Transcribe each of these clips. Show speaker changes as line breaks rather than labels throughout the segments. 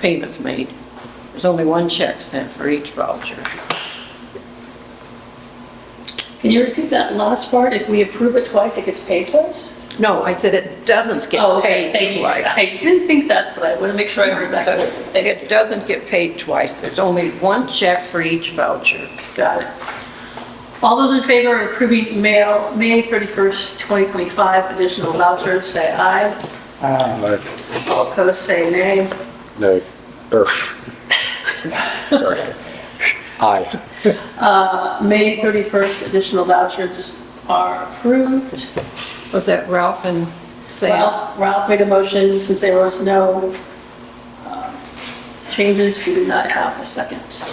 payments made. There's only one check sent for each voucher.
Can you repeat that last part? If we approve it twice, it gets paid twice?
No, I said it doesn't get
Oh, okay, thank
paid
you.
twice.
I didn't think that's what I, want to make sure I heard that correctly. Thank you.
It doesn't get paid twice. There's only one check for each voucher.
Got it. All those in favor of approving mail, May 31st, 2025 additional vouchers, say aye.
No.
All opposed, say nay.
No. Er. Sorry. Aye.
Uh, May 31st additional vouchers are approved.
Was that Ralph and Sam?
Ralph, Ralph made a motion, since there was no uh, changes, we did not have a second.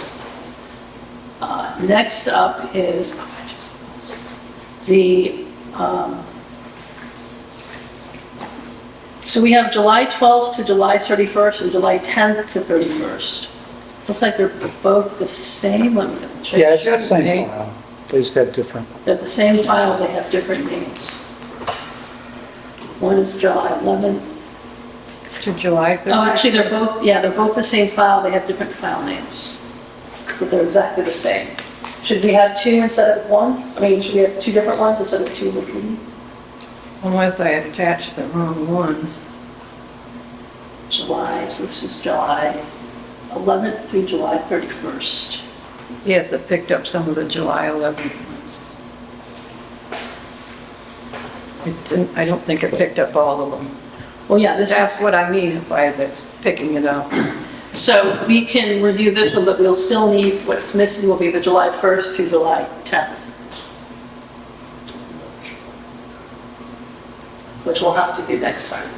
Uh, Next up is oh, the, um, so we have July 12th to July 31st and July 10th to 31st. Looks like they're both the same, let me double check.
Yeah, it's the
Shouldn't
same
be.
file. They just have different.
They're the same file, they have different names. One is July 11th,
To July
Oh,
31st?
actually, they're both, yeah, they're both the same file, they have different file names, but they're exactly the same. Should we have two instead of one? I mean, should we have two different ones instead of two repeating?
Unless I attached the wrong ones.
July, so this is July 11th through July 31st.
Yes, I picked up some of the July 11th ones. It didn't, I don't think I picked up all of them.
Well, yeah, this
That's
is,
what I mean by that's picking it up.
so we can review this one, but we'll still need, what's missing will be the July 1st through July 10th. Which we'll have to do next time.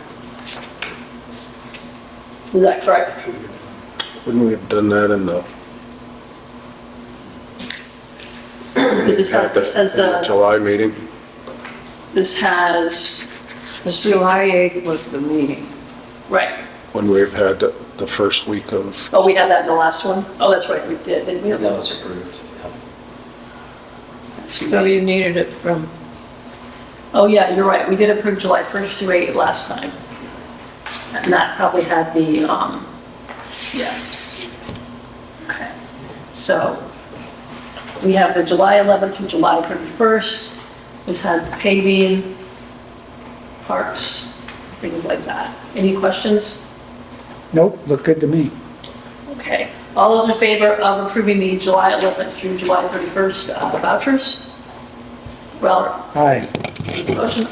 Is that correct?
Wouldn't we have done that in the?
Because this has, this has
in the
the,
July meeting?
this has,
The July 8th was the meeting.
right.
When we've had the, the first week of,
Oh, we had that in the last one? Oh, that's right, we did, didn't we?
Yeah, that was approved. yeah.
So you needed it from,
Oh, yeah, you're right, we did approve July 1st through 8 last time. And that probably had the, um, yeah. Okay, so we have the July 11th through July 31st. This has paving, parks, things like that. Any questions?
Nope, look good to me.
Okay. All those in favor of approving the July 11th through July 31st uh, vouchers? Ralph?
Aye.
Motion.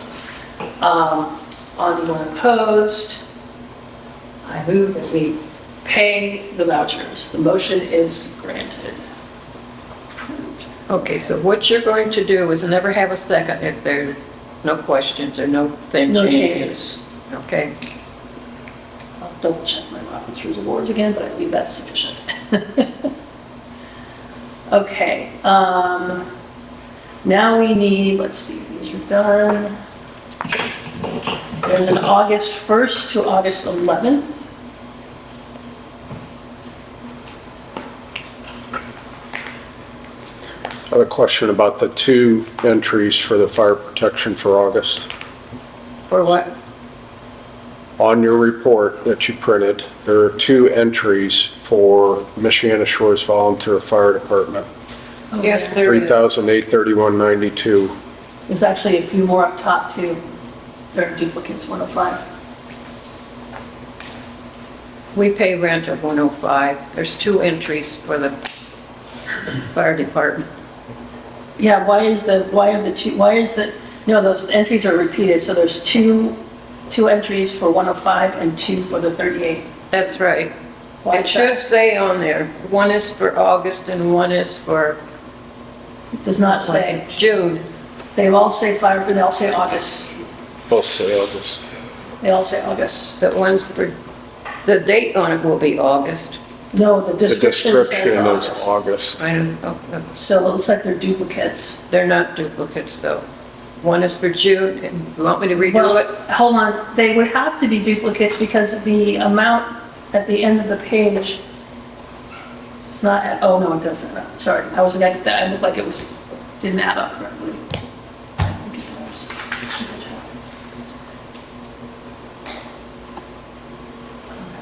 Um, Anyone opposed? I move that we pay the vouchers. The motion is granted.
okay, so what you're going to do is never have a second if there are no questions or no thing
No
changes.
changes.
Okay,
I'll double check my Robert's Rules of Orders again, but I believe that's sufficient. Okay, um, now we need, let's see, these are done. There's an August 1st to August 11th.
I have a question about the two entries for the fire protection for August.
for what?
On your report that you printed, there are two entries for Michiana Shores Volunteer Fire Department.
Yes, there
Three
is.
thousand eight thirty-one ninety-two.
There's actually a few more up top too. There are duplicates, 105.
We pay rent of 105. There's two entries for the fire department.
Yeah, why is the, why are the two, why is the, no, those entries are repeated. So there's two, two entries for 105 and two for the 38.
That's right.
Why
It
is that?
should say on there, one is for August and one is for
It Does not say.
June.
They all say fire, but they all say August.
Both say August.
They all say August.
But one's for, the date on it will be August.
No, the
The
description
description
says
is
August.
August.
I don't know.
So it looks like they're duplicates.
They're not duplicates, though. One is for June, and you want me to
Well,
redo it?
hold on, they would have to be duplicates because the amount at the end of the page is not, oh, no, it doesn't. Sorry, I wasn't, I looked like it was, didn't add up correctly.